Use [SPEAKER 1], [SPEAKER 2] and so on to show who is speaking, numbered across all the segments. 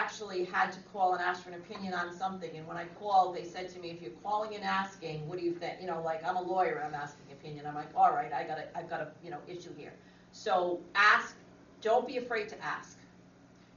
[SPEAKER 1] actually had to call and ask for an opinion on something, and when I called, they said to me, if you're calling and asking, what do you think, you know, like, I'm a lawyer, and I'm asking opinion, I'm like, all right, I got a, I've got a, you know, issue here. So ask, don't be afraid to ask.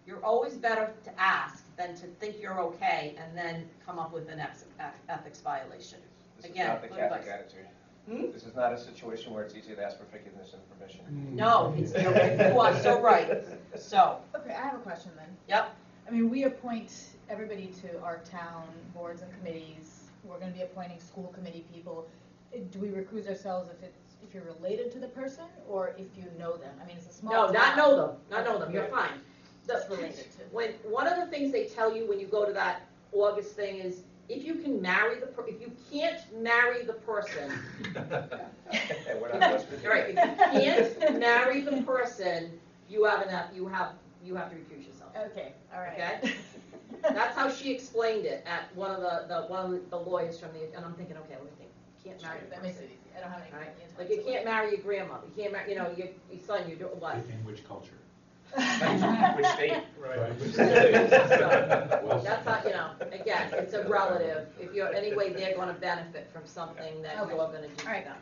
[SPEAKER 1] You're always better to ask than to think you're okay and then come up with an ex- ethics violation.
[SPEAKER 2] This is
[SPEAKER 1] Again,
[SPEAKER 2] not the
[SPEAKER 1] good
[SPEAKER 2] Catholic
[SPEAKER 1] advice.
[SPEAKER 2] attitude.
[SPEAKER 1] Hmm?
[SPEAKER 2] This is not a situation where it's easy to ask for forgiveness and
[SPEAKER 3] Mm-hmm.
[SPEAKER 2] permission.
[SPEAKER 1] No, it's, you are so right, so,
[SPEAKER 4] Okay, I have a question then.
[SPEAKER 1] yep,
[SPEAKER 4] I mean, we appoint everybody to our town boards and committees. We're gonna be appointing school committee people. Uh, Do we recuse ourselves if it's, if you're related to the person or if you know them? I mean, it's a small
[SPEAKER 1] no,
[SPEAKER 4] town.
[SPEAKER 1] not know them, not know them, you're fine. The-
[SPEAKER 4] It's related to.
[SPEAKER 1] When, one of the things they tell you when you go to that August thing is, if you can marry the, per- if you can't marry the person,
[SPEAKER 2] And we're not supposed to do
[SPEAKER 1] You're right, if you can't marry the person, you have enough, you have, you have to recuse yourself.
[SPEAKER 4] Okay, all right.
[SPEAKER 1] Okay. That's how she explained it at one of the, the, one of the lawyers from the, and I'm thinking, okay, let me think, can't
[SPEAKER 4] Sure,
[SPEAKER 1] marry the
[SPEAKER 4] That makes
[SPEAKER 1] person.
[SPEAKER 4] it easy. I don't have any.
[SPEAKER 1] Alright,
[SPEAKER 4] opinions.
[SPEAKER 1] Like, you can't marry your grandma, you can't marry, you know, your, your son, your, daughter, what?
[SPEAKER 3] In which culture?
[SPEAKER 2] that. Which state?
[SPEAKER 1] So, That's how, you know, again, it's a relative, if you're, anyway, they're gonna benefit from something that you're
[SPEAKER 4] Okay.
[SPEAKER 1] gonna do to
[SPEAKER 4] Alright.
[SPEAKER 1] them.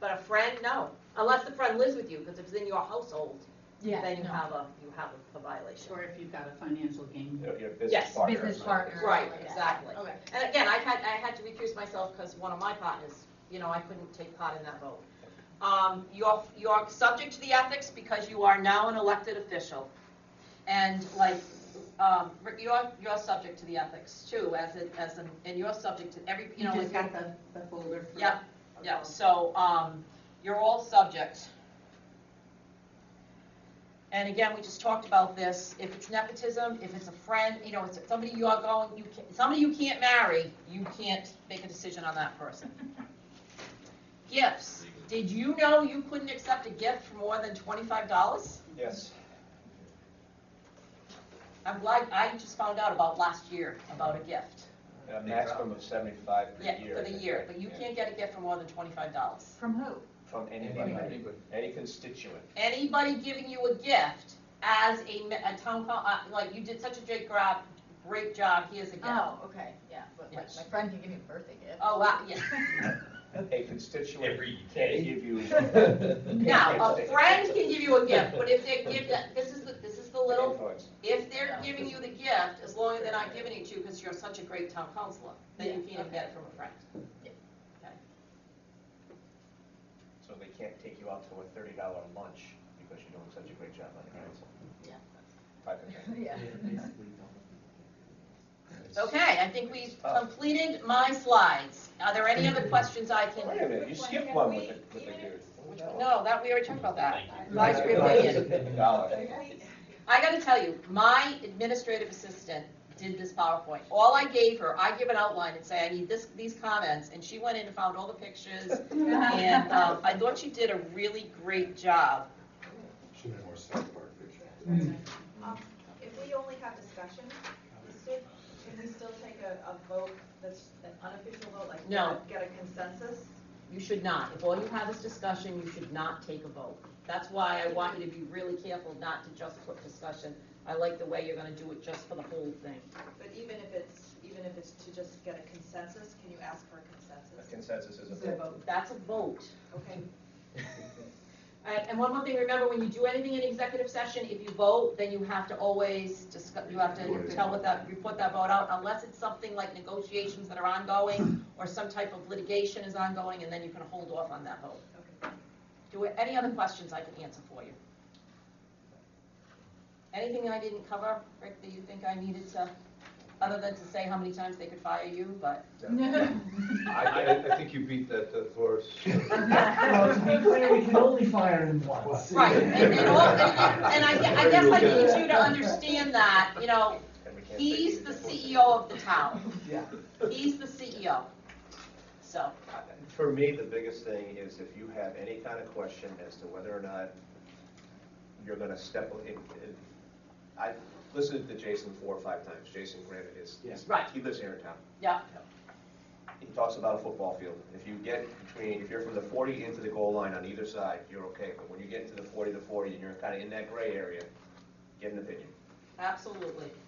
[SPEAKER 1] But a friend, no, unless the friend lives with you, because if it's in your household,
[SPEAKER 4] Yeah,
[SPEAKER 1] then you
[SPEAKER 4] no.
[SPEAKER 1] have a, you have a violation.
[SPEAKER 5] Or if you've got a financial gain.
[SPEAKER 2] Your your business
[SPEAKER 1] Yes.
[SPEAKER 2] partner.
[SPEAKER 4] Business partner. or
[SPEAKER 1] Right,
[SPEAKER 4] something like that.
[SPEAKER 1] exactly.
[SPEAKER 4] Okay.
[SPEAKER 1] And again, I had, I had to recuse myself because one of my partners, you know, I couldn't take part in that vote. Um, you're, you're subject to the ethics because you are now an elected official. And like, um, Rick, you're, you're subject to the ethics too, as it, as an, and you're subject to every, you
[SPEAKER 5] You
[SPEAKER 1] know,
[SPEAKER 5] just
[SPEAKER 1] like,
[SPEAKER 5] got the, the folder for.
[SPEAKER 1] yeah, yeah, so, um, you're all subject. And again, we just talked about this, if it's nepotism, if it's a friend, you know, it's somebody you are going, you can, somebody you can't marry, you can't make a decision on that person. Gifts, did you know you couldn't accept a gift for more than twenty-five dollars?
[SPEAKER 2] Yes.
[SPEAKER 1] I'm glad, I just found out about last year, about a gift.
[SPEAKER 2] A maximum of seventy-five per
[SPEAKER 1] Yeah,
[SPEAKER 2] year.
[SPEAKER 1] for the year, but you
[SPEAKER 2] Yeah.
[SPEAKER 1] can't get a gift for more than twenty-five dollars.
[SPEAKER 4] From who?
[SPEAKER 2] From anybody, any constituent.
[SPEAKER 1] anybody giving you a gift as a, me- a town, co- uh, like, you did such a great job, great job, here's a gift.
[SPEAKER 4] Oh, okay, yeah, but like,
[SPEAKER 1] Yes.
[SPEAKER 4] my friend can give me a birthday gift.
[SPEAKER 1] Oh, wow, yeah.
[SPEAKER 2] A constituent
[SPEAKER 3] Every
[SPEAKER 2] can
[SPEAKER 3] day.
[SPEAKER 2] give you.
[SPEAKER 1] Now, a friend can give you a gift, but if they give that, this is the, this is the little,
[SPEAKER 2] Influence.
[SPEAKER 1] if they're giving you the gift, as long as they're not giving it to you because you're such a great town councilor, then you
[SPEAKER 4] Yeah,
[SPEAKER 1] can't even
[SPEAKER 4] okay.
[SPEAKER 1] get it from a friend.
[SPEAKER 2] So they can't take you out to a thirty dollar lunch because you're doing such a great job on the council.
[SPEAKER 4] Yeah.
[SPEAKER 2] Type of thing.
[SPEAKER 4] Yeah.
[SPEAKER 1] Okay, I think we've completed my slides. Are there any other questions I can?
[SPEAKER 2] Wait a minute, you skipped one with the, with the dude.
[SPEAKER 1] No, that, we already talked about that. Advisory opinion.
[SPEAKER 2] Dollar.
[SPEAKER 1] I gotta tell you, my administrative assistant did this PowerPoint. All I gave her, I give an outline and say, I need this, these comments, and she went in and found all the pictures. And,
[SPEAKER 5] uh,
[SPEAKER 1] um, I thought she did a really great job.
[SPEAKER 3] Should have been more South Park picture.
[SPEAKER 6] Um, If we only have discussion, we still- can we still take a, a vote, that's an unofficial vote, like?
[SPEAKER 1] No.
[SPEAKER 6] Get a consensus?
[SPEAKER 1] You should not, if all you have is discussion, you should not take a vote. That's why I want you to be really careful not to just put discussion. I like the way you're gonna do it just for the whole thing.
[SPEAKER 6] But even if it's, even if it's to just get a consensus, can you ask for a
[SPEAKER 2] The
[SPEAKER 6] consensus?
[SPEAKER 2] consensus is a
[SPEAKER 6] Is it a
[SPEAKER 2] vote.
[SPEAKER 6] vote?
[SPEAKER 1] That's a vote.
[SPEAKER 6] Okay.
[SPEAKER 1] All right, and one more thing, remember, when you do anything in executive session, if you vote, then you have to always discuss, you have to tell what that, report that vote out, unless it's something like negotiations that are ongoing, or some type of litigation is ongoing, and then you can hold off on that vote. Do, any other questions I can answer for you? Anything I didn't cover, Rick, that you think I needed to, other than to say how many times they could fire you, but.
[SPEAKER 7] I, I, I think you beat that uh, to the horse.
[SPEAKER 8] Well, to be clear, we can only fire him once.
[SPEAKER 1] Right, and, and all, and, and I, gue- I guess I need you to understand that, you know,
[SPEAKER 2] And we can't take
[SPEAKER 1] he's
[SPEAKER 2] you
[SPEAKER 1] the
[SPEAKER 2] to court.
[SPEAKER 1] CEO of the town,
[SPEAKER 8] Yeah.
[SPEAKER 1] he's the CEO. So,
[SPEAKER 2] For me, the biggest thing is if you have any kind of question as to whether or not you're gonna step, if, if, I've listened to Jason four or five times, Jason Granite is, is-
[SPEAKER 1] Right.
[SPEAKER 2] he lives here in town.
[SPEAKER 1] yeah,
[SPEAKER 2] He talks about a football field, if you get between, if you're from the forty into the goal line on either side, you're okay, but when you get into the forty to forty and you're kinda in that gray area, get an opinion.
[SPEAKER 1] absolutely.